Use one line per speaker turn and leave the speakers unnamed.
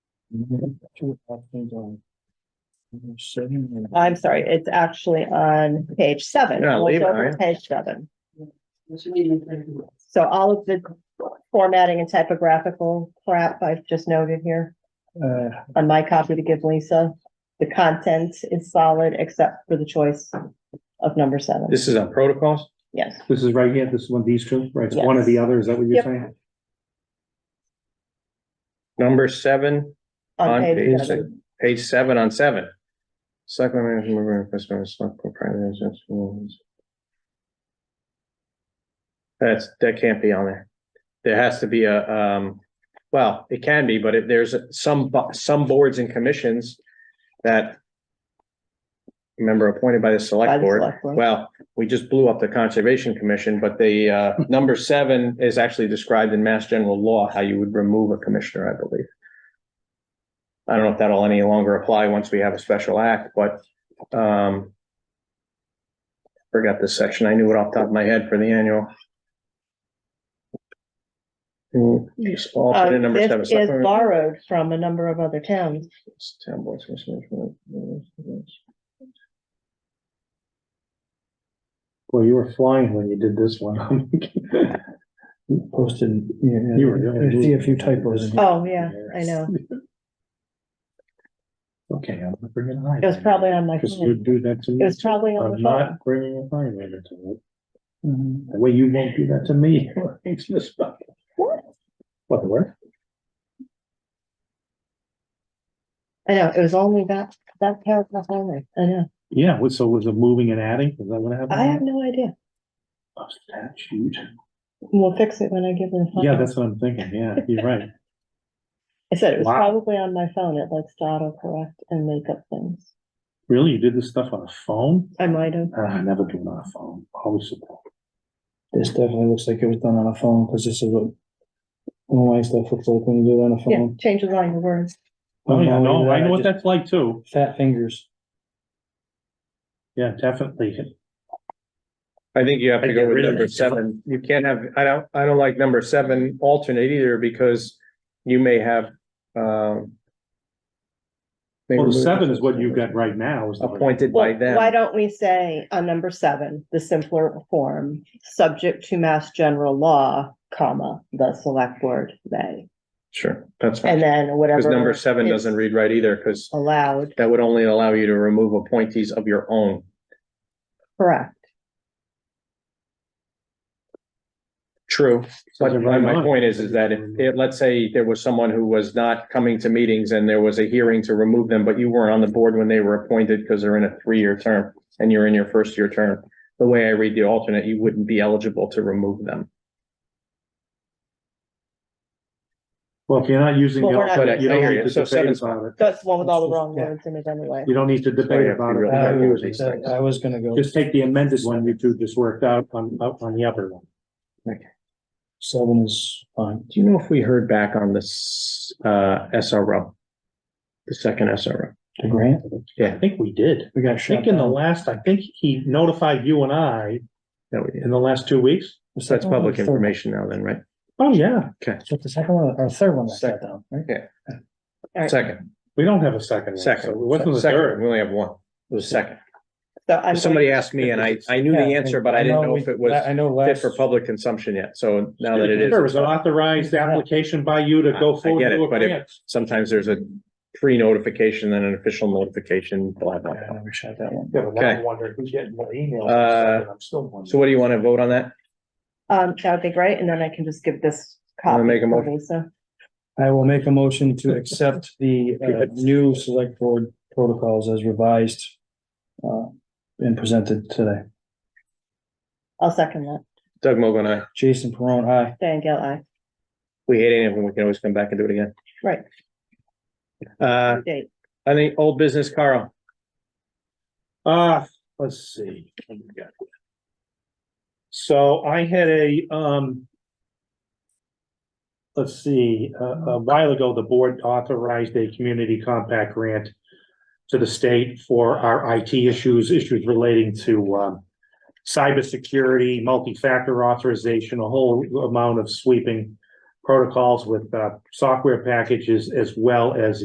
I'm sorry, it's actually on page seven.
Yeah, leave it,
We'll go to
alright.
Page seven. So all of the formatting and typographical crap I've just noted here on my copy to give Lisa. The content is solid except for the choice of number seven.
This is on protocols?
Yes,
This is right here, this is one of these two, right? It's one or the other, is that what you're
Yep.
saying?
Number seven,
on
On
page
page
seven.
page seven on seven. Selectmen may remove or request by select board primary residence. That's, that can't be on there. There has to be a, um, well, it can be, but if there's some, bo- some boards and commissions that member appointed by the
By
select
the
board.
select board.
Well, we just blew up the Conservation Commission, but the uh, number seven is actually described in Mass General Law, how you would remove a commissioner, I believe. I don't know if that'll any longer apply once we have a special act, but um forgot this section. I knew it off the top of my head for the annual. Hmm, just all
Uh,
put in number
This
seven.
is borrowed from a number of other towns.
Town boards, commissioners, commissioners.
Well, you were flying when you did this one.
Posted, yeah,
You were-
I see a few typos. in here.
Oh, yeah, I know.
Okay, I'm not bringing a highlighter.
It was probably on my
Because you
phone.
do that to
It
me.
was probably on the
I'm
phone.
not bringing a highlighter to it.
Mhm.
The way you won't do that to me. It's just like, What? What, where?
I know, it was only that, that paragraph only. I know.
Yeah, what- so was it moving and adding? Is that what happened?
I have no idea.
Oh, Statute.
We'll fix it when I give her the phone.
Yeah, that's what I'm thinking. Yeah, you're right.
I said it was
Wow.
probably on my phone. It likes to auto correct and make up things.
Really? You did this stuff on a phone?
I might have.
Ah, I never do it on a phone. Always. a phone.
This definitely looks like it was done on a phone, because this is what online stuff looks like when you do it on a
Yeah,
phone.
change the line of words.
Oh, yeah,
I'm not
no,
only
I know
that,
what
just
that's like too.
Fat fingers.
Yeah, definitely.
I think you have to
I'd
go
get
with
rid of
number
it.
seven. You can't have, I don't, I don't like number seven alternate either because you may have, um. may
Well, the
remove-
seven is what you've got right now. is the-
Appointed by
Well,
them.
why don't we say on number seven, the simpler form, subject to mass general law, comma, the select board may.
Sure, that's fine.
And then whatever.
Because number seven
is
doesn't read right either, because
Allowed,
that would only allow you to remove appointees of your own.
correct.
True, but
Says it right
my
on.
point is, is that if, if- let's say there was someone who was not coming to meetings and there was a hearing to remove them, but you weren't on the board when they were appointed because they're in a three-year term and you're in your first year term, the way I read the alternate, you wouldn't be eligible to remove them.
Well, if you're not using.
Well,
the
we're not-
But I I
alternate, you don't
hear
need
you,
to
so
debate
seven's fine.
about it.
That's the one with all the wrong
Yeah.
words in it anyway.
You don't need to
Sorry,
debate
I
about
feel
it.
really
Uh,
I
bad
was-
with these things.
I was gonna go
Just take the amended one you two just worked out on, up on the other one.
seven is fine.
Do you know if we heard back on this, uh, SRO? The second SRO?
The grant,
I think we did.
we got
I
shut
think in the
down.
last, I think he notified you and I
That we did.
in the last two weeks.
The
So that's
second one or
public
the third one?
information now then, right?
Oh, yeah.
Is that the second one or the third one that shut
Second.
down, right?
All right.
Second,
We don't have a second. one, so
second,
It wasn't the
second,
third.
we only have one. It was second.
So I'm.
Somebody asked me and I, I knew the
Yeah,
answer, but I didn't know
we-
if it was
I know
fit
last.
for public consumption yet. So now that it is,
There was an authorized application by you to
I-
go
I
forward.
get
to
it,
a
but if-
grant.
sometimes there's a pre-notification, then an official notification, blah, blah,
Yeah, I
blah.
never shut that one.
Yeah, but now
Okay.
I'm wondering who's getting what email.
Uh,
I'm still wondering.
So what do you want to vote on that?
Um, that would be great, and then I can just give this
Wanna
copy
make a
to
motion?
Lisa.
I will make a motion to accept the uh, new select board protocols as revised uh, and presented today.
I'll second that.
Doug Mogul and I,
Jason Peron, aye.
Diane Gale, aye.
we hate any of them. We can always come back and do it again.
Right.
Uh,
Date.
I think old business, Carl.
Uh, let's see. What do we got here? So I had a, um. Let's see, a, a while ago, the board authorized a community compact grant. To the state for our IT issues, issues relating to, um. Cybersecurity, multi-factor authorization, a whole amount of sweeping protocols with, uh, software packages as well as